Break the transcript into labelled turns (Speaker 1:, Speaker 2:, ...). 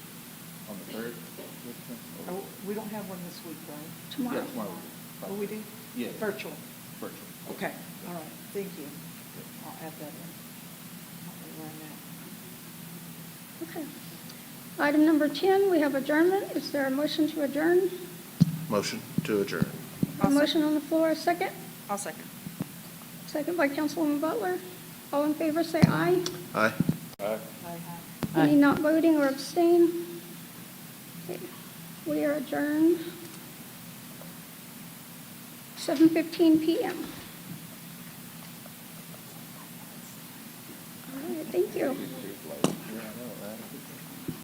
Speaker 1: the third?
Speaker 2: Are- Oh, We don't have one this week, right?
Speaker 3: Tomorrow.
Speaker 1: Yeah, tomorrow.
Speaker 2: Oh, we do?
Speaker 1: Yeah.
Speaker 2: Virtual?
Speaker 1: Virtual.
Speaker 2: Okay, all right, thank you. I'll add that in. I'll run that.
Speaker 3: Okay. Item number 10, we have adjournment. Is there a motion to adjourn?
Speaker 4: Motion to adjourn.
Speaker 3: A
Speaker 2: I'll sec-
Speaker 3: motion on the floor, a second?
Speaker 2: I'll second.
Speaker 3: Second by Councilwoman Butler. All in favor, say aye.
Speaker 4: Aye.
Speaker 2: Aye.
Speaker 3: Any not voting or abstain? Okay. We are adjourned. 7:15 PM. All right, thank you.
Speaker 1: Yeah, I know, right?